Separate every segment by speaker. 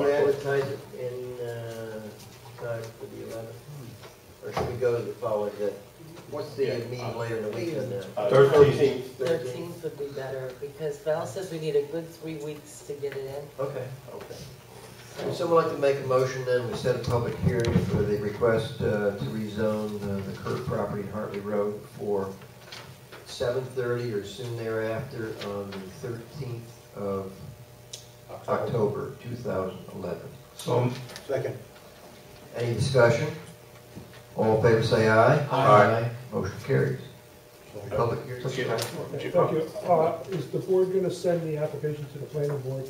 Speaker 1: uh, the, what's the
Speaker 2: Yeah,
Speaker 1: meeting
Speaker 2: uh,
Speaker 1: later in the week in there?
Speaker 2: Uh,
Speaker 3: Thirteenth.
Speaker 1: Thirteenth.
Speaker 4: Thirteenth would be better, because Val says we need a good three weeks to get it in.
Speaker 1: Okay, okay. Would someone like to make a motion then, we set a public hearing for the request uh, to rezone uh, the Kirk property in Hartley Road for 7:30 or soon thereafter on the 13th of October 2011?
Speaker 3: So,
Speaker 2: Second.
Speaker 1: Any discussion? All in favor say aye.
Speaker 3: Aye.
Speaker 1: Motion carries. Public hearing.
Speaker 3: Let's get that.
Speaker 5: Okay, Thank you. Uh, Is the board going to send the application to the planning board?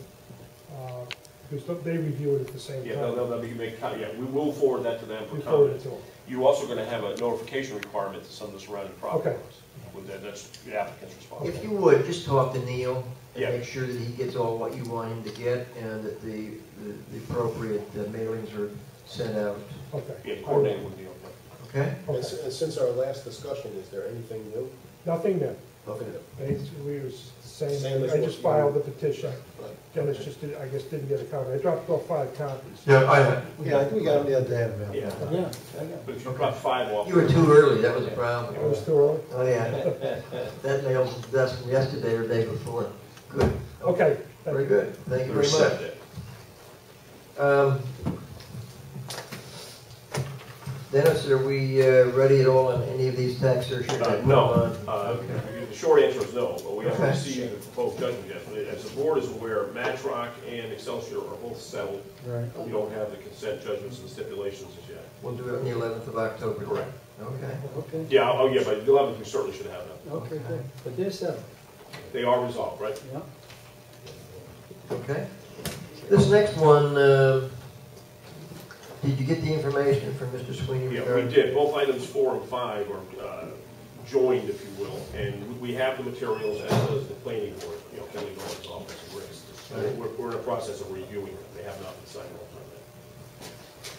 Speaker 5: Uh, Because don't- they review it at the same
Speaker 6: Yeah, they'll,
Speaker 5: time.
Speaker 6: they'll they'll be make, com- yeah, we will forward that to them for
Speaker 5: You forward
Speaker 6: comment.
Speaker 5: it to them.
Speaker 6: You're also gonna have a notification requirement to some of the surrounding property
Speaker 5: Okay.
Speaker 6: owners. With that, that's the applicant's
Speaker 1: If
Speaker 6: responsibility.
Speaker 1: you would, just talk to Neil and
Speaker 6: Yeah.
Speaker 1: make sure that he gets all what you want him to get and that the, the- the appropriate uh, mailings are sent out,
Speaker 5: Okay.
Speaker 6: Yeah, coordinated with the owner.
Speaker 1: okay?
Speaker 2: And s-
Speaker 5: Okay.
Speaker 2: and since our last discussion, is there anything new?
Speaker 5: Nothing then.
Speaker 2: Nothing new.
Speaker 5: It's- We were
Speaker 2: Same
Speaker 5: saying,
Speaker 2: as
Speaker 5: I
Speaker 2: what
Speaker 5: just
Speaker 2: you-
Speaker 5: filed the petition.
Speaker 2: Right.
Speaker 5: Dennis just, did- I guess, didn't get a copy. I dropped off five copies.
Speaker 3: Yeah, I have.
Speaker 2: Yeah, I think we got them the other day, man.
Speaker 6: Yeah,
Speaker 2: Yeah.
Speaker 6: but if you drop five off.
Speaker 1: You were too early, that was a
Speaker 5: I
Speaker 1: problem.
Speaker 5: was too early.
Speaker 1: Oh, yeah. That mail's, that's from yesterday or day before. Good,
Speaker 5: Okay. thank
Speaker 1: very
Speaker 5: you.
Speaker 1: good, thank you
Speaker 3: We're
Speaker 1: very
Speaker 3: set
Speaker 1: much.
Speaker 3: there.
Speaker 1: Um, Dennis, are we uh, ready at all on any of these tax surcharges?
Speaker 6: Uh, No, uh, the short answer is no, but we haven't
Speaker 1: Okay.
Speaker 6: received the proposed judgment yet. But As the board is aware, Matrock and Excelsior are both settled. We don't have the consent judgments and stipulations as yet.
Speaker 1: We'll do it on the 11th of October.
Speaker 6: Correct.
Speaker 1: Okay.
Speaker 7: Okay,
Speaker 6: Yeah, oh, yeah, but the eleventh, we certainly should have them.
Speaker 7: okay, good. But they're settled,
Speaker 6: They are resolved, right?
Speaker 7: yeah?
Speaker 1: Okay. This next one, uh, did you get the information from Mr. Sweeney?
Speaker 6: Yeah, we
Speaker 1: regarding-
Speaker 6: did. Both items four and five are uh, joined, if you will, and we have the materials as does the planning board, you know, Kelly Goins office and Rick's. And We're, we're in the process of reviewing them. They have not been signed off on that.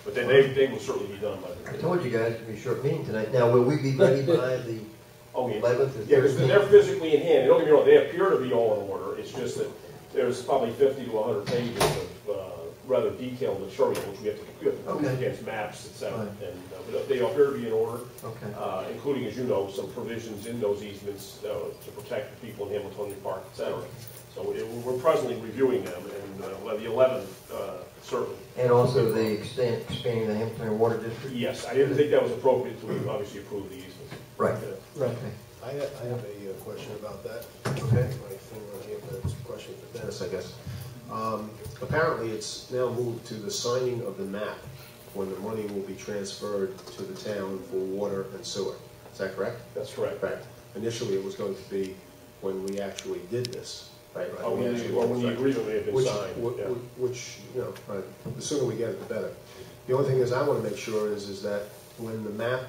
Speaker 6: But then they, they will certainly be done by
Speaker 1: I
Speaker 6: the.
Speaker 1: told you guys it'd be a short meeting tonight. Now, will we be ready by the
Speaker 6: Oh, yeah.
Speaker 1: 11th or
Speaker 6: Yeah, because
Speaker 1: 13th?
Speaker 6: they're physically in hand, don't get me wrong, they appear to be all in order, it's just that there's probably fifty to hundred pages of, uh, rather detailed material, which we have to, we have to prove
Speaker 1: Okay.
Speaker 6: against maps, et cetera,
Speaker 1: Right.
Speaker 6: and, uh, but they appear to be in order,
Speaker 1: Okay.
Speaker 6: uh, including, as you know, some provisions in those easements, uh, to protect the people in Hamiltonian Park, et cetera. So it- we're presently reviewing them, and, uh, well, the eleventh, uh, certainly,
Speaker 1: And also the extent, expanding the Hamilton Water District?
Speaker 6: yes, I didn't think that was appropriate to obviously approve the easements.
Speaker 1: Right.
Speaker 6: Yeah.
Speaker 1: Right.
Speaker 2: I have, I have a uh, question about that.
Speaker 1: Okay.
Speaker 2: My thing right here, but it's a question for Dennis, I guess. Um, Apparently, it's now moved to the signing of the map when the money will be transferred to the town for water and sewer. Is that correct?
Speaker 6: That's correct.
Speaker 2: Right. Initially, it was going to be when we actually did this, right?
Speaker 6: Or Uh, Oh, when the, or when the agreement may have been
Speaker 2: Which,
Speaker 6: signed,
Speaker 2: wh-
Speaker 6: yeah.
Speaker 2: wh- which, you know, right, the sooner we get it, the better. The only thing is, I want to make sure is, is that when the map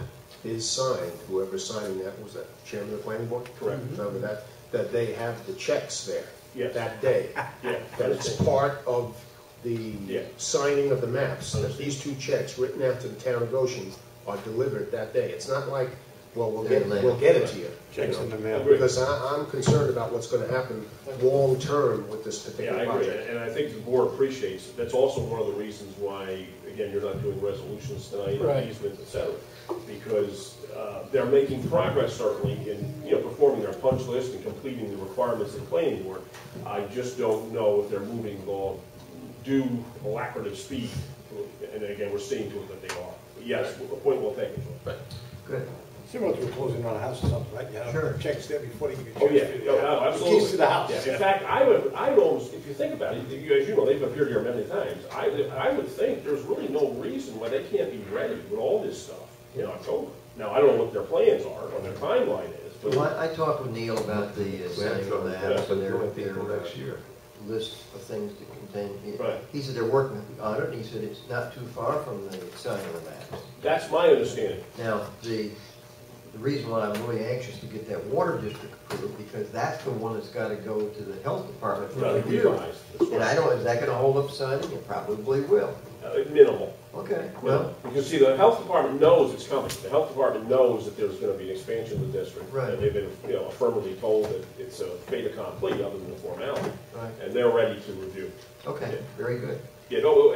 Speaker 2: is signed, whoever's signing that, was that chairman of the planning board?
Speaker 6: Correct.
Speaker 2: Remember that, that they have the checks there.
Speaker 6: Yes.
Speaker 2: That day,
Speaker 6: Yeah.
Speaker 2: that it's part of the
Speaker 6: Yeah.
Speaker 2: signing of the maps, that
Speaker 6: Understood.
Speaker 2: these two checks written out to the town of Goshen are delivered that day. It's not like, well, we'll
Speaker 1: They're
Speaker 2: get,
Speaker 1: later.
Speaker 2: we'll get it to you.
Speaker 3: Checks
Speaker 2: you know?
Speaker 3: in the mail.
Speaker 6: Agreed.
Speaker 2: Because I, I'm concerned about what's gonna happen long-term with this
Speaker 6: Yeah, I
Speaker 2: particular
Speaker 6: agree,
Speaker 2: project.
Speaker 6: and I think the board appreciates, it. that's also one of the reasons why, again, you're not doing resolutions tonight,
Speaker 7: Right.
Speaker 6: and easements, et cetera. Because uh, they're making progress certainly in, you know, performing their punch list and completing the requirements of the planning board. I just don't know if they're moving along due alacrity speed, and again, we're seeing to it that they are. But Yes, a point well taken. Right.
Speaker 1: Good.
Speaker 8: Similar to a closing on a house or something, right? You
Speaker 1: Sure.
Speaker 8: have checks there before you get.
Speaker 6: Oh, yeah,
Speaker 8: checks.
Speaker 6: yeah, no, absolutely.
Speaker 8: Keys to the house.
Speaker 6: Yeah, In fact, I would, I would almost, if you think about it, you- as you know, they've appeared here many times, I, would- I would think there's really no reason why they can't be ready with all this stuff in October. Now, I don't know what their plans are, or their timeline is,
Speaker 1: Well,
Speaker 6: but
Speaker 1: I, I talked with Neil about the uh,
Speaker 3: We have to
Speaker 1: signing
Speaker 3: go
Speaker 1: of
Speaker 3: to
Speaker 1: the
Speaker 3: that,
Speaker 1: apps
Speaker 3: so
Speaker 1: and
Speaker 3: they're
Speaker 1: their,
Speaker 3: going
Speaker 1: their uh,
Speaker 3: next year.
Speaker 1: list of things to contain. He-
Speaker 6: Right.
Speaker 1: He said they're working on it, and he said it's not too far from the signing of the maps.
Speaker 6: that's my understanding.
Speaker 1: Now, the, the reason why I'm really anxious to get that water district approved, because that's the one that's gotta go to the health department for
Speaker 6: Now, they
Speaker 1: review.
Speaker 6: realize this
Speaker 1: And I don't, is that gonna hold up signing? It probably will.
Speaker 6: was, uh, Minimal.
Speaker 1: Okay, well,
Speaker 6: Well, you can see the health department knows it's coming. The health department knows that there's gonna be an expansion of the district.
Speaker 1: Right.
Speaker 6: And they've been, you know, affirmatively told that it's a fait accompli other than a formality,
Speaker 1: right,
Speaker 6: and they're ready to review.
Speaker 1: okay, very good.
Speaker 6: Yeah, no,